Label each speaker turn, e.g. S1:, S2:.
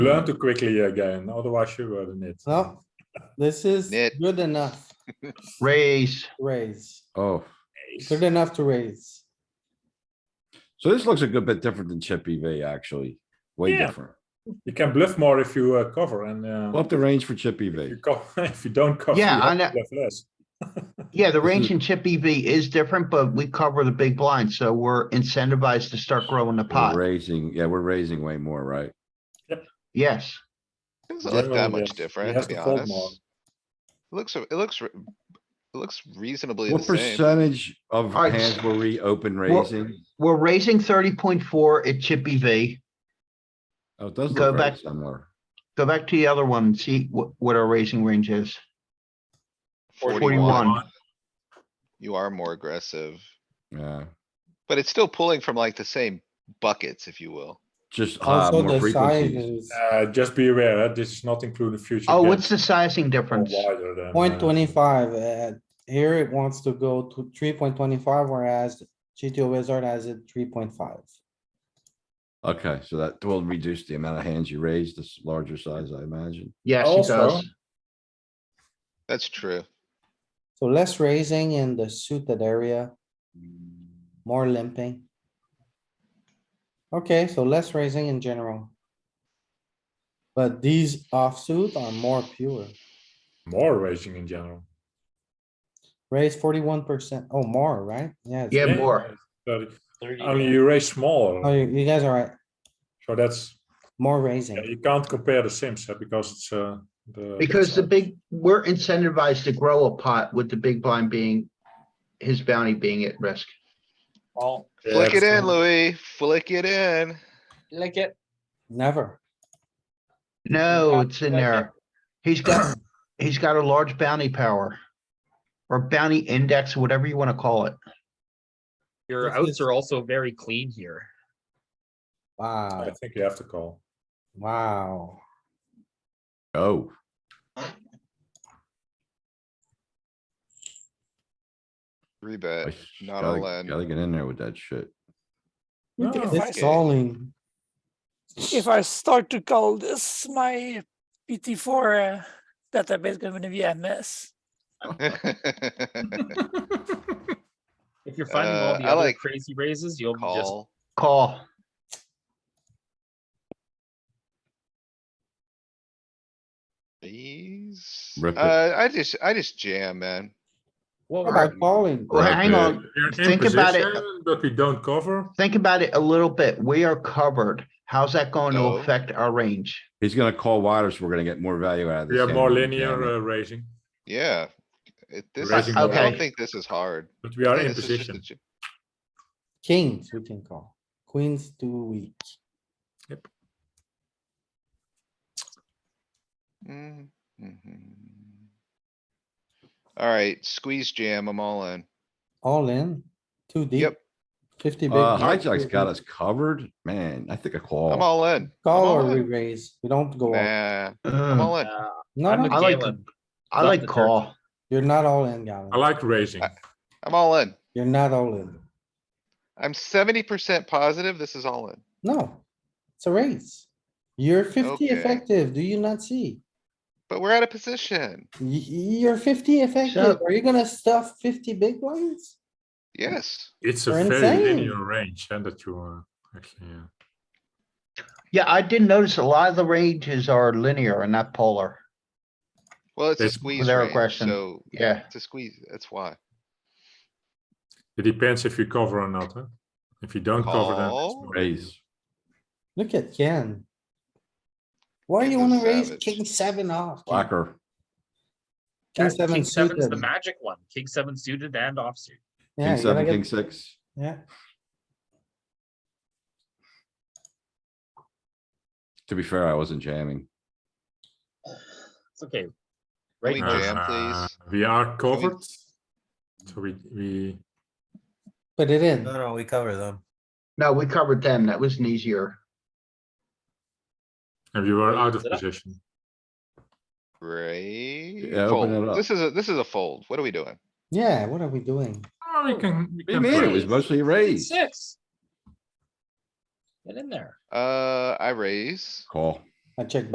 S1: Learn to quickly again, otherwise you were in it.
S2: Well, this is
S3: Nit.
S2: good enough
S4: Raise.
S2: raise.
S5: Oh,
S2: Good enough to raise.
S5: so this looks a good bit different than chip EV actually. Way
S1: Yeah.
S5: different.
S1: You can bluff more if you uh, cover and uh,
S5: Up the range for chip E
S1: if you
S5: EV.
S1: co- if you don't cover.
S4: Yeah,
S1: you have
S4: I
S1: to
S4: know.
S1: bluff less.
S4: Yeah, the range in chip EV is different, but we cover the big blind, so we're incentivized to start growing the
S5: We're
S4: pot.
S5: raising, yeah, we're raising way more, right?
S4: Yes.
S3: Doesn't look that
S1: Generally,
S3: much
S1: yes.
S3: different,
S1: He has
S3: to be
S1: to fold
S3: honest.
S1: more.
S3: Looks, it looks, re- it looks reasonably the
S5: What
S3: same.
S5: percentage of
S4: Alright,
S5: hands were we open
S4: Well-
S5: raising?
S4: We're raising thirty point four at chip E EV.
S5: Oh, it does
S4: Go
S5: look very
S4: back-
S5: similar.
S4: Go back to the other one, and see what, what our raising range is.
S3: Forty-one, you are more aggressive,
S5: Yeah,
S3: but it's still pulling from like the same buckets, if you will.
S5: just uh,
S2: Also the
S5: more
S2: size
S5: frequencies.
S2: is
S1: Uh, just be aware, uh, this is not including future.
S4: Oh,
S1: games,
S4: what's the sizing
S1: more
S4: difference?
S1: wider than, uh,
S2: point twenty-five. uh, Here it wants to go to three point twenty-five, whereas GTO wizard has it three point five.
S5: Okay, so that will reduce the amount of hands you raise, this larger size, I imagine.
S4: Yes, it
S1: Also-
S4: does.
S3: That's true.
S2: So less raising in the suited area. More limping. Okay, so less raising in general. But these offsuit are more pure.
S1: More racing in general.
S2: Raise forty-one percent, oh, more, right? Yeah. it's-
S4: Yeah,
S1: Yeah,
S4: more.
S1: But only you raise
S2: Oh,
S1: small,
S2: you you guys are right,
S1: so that's,
S2: more
S1: yeah,
S2: raising.
S1: you can't compare the sims, uh, because it's, uh, the.
S4: Because the big, we're incentivized to grow a pot with the big blind being, his bounty being at risk.
S1: Yeah,
S3: Flick it in,
S1: absolutely.
S3: Louis, flick it in.
S6: Like it.
S2: Never.
S4: No,
S6: Yeah,
S4: it's in
S6: okay.
S4: there. He's got, he's got a large bounty power. Or bounty index, whatever you wanna call it.
S6: Your
S2: This
S6: outs
S2: is-
S6: are also very clean here.
S2: Wow,
S1: I think you have to call.
S2: wow.
S5: Oh, I
S3: Rebet,
S5: s-
S3: not all
S5: gotta, gotta
S3: in.
S5: get in there with that shit.
S1: No,
S7: If
S1: I-
S2: It's
S3: Okay.
S2: calling.
S7: if I start to call this my PT4 uh, database going to be a mess.
S6: If you're finding all
S3: Uh,
S6: the
S3: I
S6: other
S3: like
S6: crazy raises, you'll be just
S3: Call,
S4: Call.
S3: please.
S5: Rip it.
S3: Uh, I just, I just jam, man.
S2: What about calling?
S4: Well,
S5: Right
S4: hang
S5: there.
S4: on,
S1: We're in
S4: Think about it.
S1: position, But we don't cover.
S4: think about it a little bit. We are covered. How's that going to
S3: No.
S4: affect our range?
S5: He's gonna call wider, so we're gonna get more value out of this.
S1: We are
S5: hand
S1: more
S5: than we can.
S1: linear uh, raising,
S3: Yeah. It, this,
S1: Raising
S3: is- I don't
S4: Okay.
S3: think this is hard.
S1: but we are
S3: Yeah,
S1: in
S3: this is just a
S1: position.
S3: j-
S2: Kings, we can call. Queens too weak.
S3: Mm, mhm. Alright, squeeze jam, I'm all in.
S2: All in, too deep.
S3: Yep.
S2: Fifty big.
S5: Uh,
S2: blind,
S5: hijack's
S2: too
S5: got
S2: deep.
S5: us covered, man. I think a
S3: I'm
S5: call.
S3: all in. I'm
S2: Call
S3: all
S2: or we
S3: in.
S2: raise, we don't go. all-
S3: Nah, I'm
S4: Ugh,
S3: all in.
S6: uh,
S2: No,
S6: I'm with
S2: no,
S4: I like
S6: Galen.
S4: I
S6: Love
S4: like
S6: the turkey.
S4: call.
S2: you're not all in, Gavin.
S1: I like raising.
S3: I'm all in.
S2: You're not all in.
S3: I'm seventy percent positive this is all in.
S2: No, it's a raise. You're fifty
S3: Okay.
S2: effective, do you not see?
S3: But we're out of position.
S2: Y- y- You're fifty effective,
S4: Shut-
S2: are you gonna stuff fifty big blinds?
S3: Yes.
S1: It's a
S2: We're
S1: very
S2: insane.
S1: linear range, and that you uh, actually. Uh,
S4: Yeah, I did notice a lot of the ranges are linear and not polar.
S3: Well, it's a
S1: That's-
S3: squeeze
S4: Without
S3: range,
S4: question.
S3: so
S4: Yeah,
S3: it's a squeeze, that's why.
S1: it depends if you cover or not. Huh? If you don't cover, then it's
S3: Call.
S1: more
S5: Raise.
S2: Look at Ken. Why
S3: Ken's
S2: you
S3: a
S2: wanna raise
S3: savage.
S2: king seven off? Ken?
S5: Blocker.
S2: King
S6: That King
S2: seven
S6: seven's the
S2: suited.
S6: magic one. King seven suited and offsuit.
S2: Yeah, you gotta
S5: King seven,
S2: get-
S5: king six.
S2: Yeah,
S5: To be fair, I wasn't jamming.
S6: It's okay.
S3: Can
S6: Right
S3: we
S6: now,
S3: jam,
S1: Uh,
S3: please?
S1: We are
S3: we-
S1: covered. So we, we,
S2: put it in.
S8: No, no, we cover them.
S4: no, we covered them. That was an easier.
S1: and we were out of
S6: Is it up?
S1: position.
S3: Right?
S5: Yeah, open it up.
S3: This is a, this is a fold. What are we doing?
S2: Yeah, what are we doing?
S1: Oh, we can, we
S5: We
S1: can.
S5: made it
S1: play.
S5: was mostly a
S6: King
S5: raise.
S6: Six. Get in there.
S3: Uh, I raise.
S5: Call.
S2: I check